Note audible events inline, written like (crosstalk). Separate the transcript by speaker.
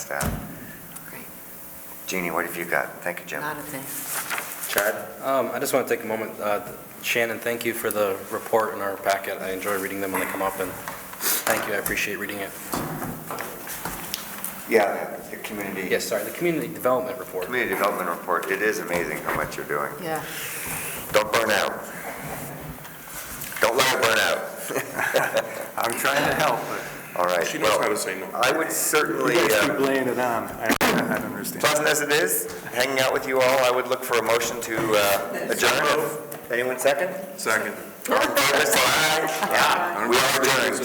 Speaker 1: that.
Speaker 2: Great.
Speaker 1: Jeannie, what have you got? Thank you,
Speaker 2: A
Speaker 1: Jim.
Speaker 2: lot of things.
Speaker 3: Chad? Um, I just want to take a moment. Uh, Shannon, thank you for the report in our packet. I enjoy reading them when they come up, and thank you, I appreciate reading it.
Speaker 1: Yeah, the the community.
Speaker 3: Yes, sorry, the community development report.
Speaker 1: Community Development Report, it is amazing how much you're doing.
Speaker 2: Yeah.
Speaker 1: Don't burn out. Don't let it burn out. (laughs) I'm trying to help. All right.
Speaker 4: She knows
Speaker 1: well,
Speaker 4: how to say no.
Speaker 1: I would certainly,
Speaker 5: You guys
Speaker 1: uh,
Speaker 5: keep laying it on. I I don't understand.
Speaker 1: pleasant as it is, hanging out with you all, I would look for a motion to uh, adjourn. Anyone second?
Speaker 4: Second.
Speaker 1: All in favor, say aye. Yeah, we are adjourned.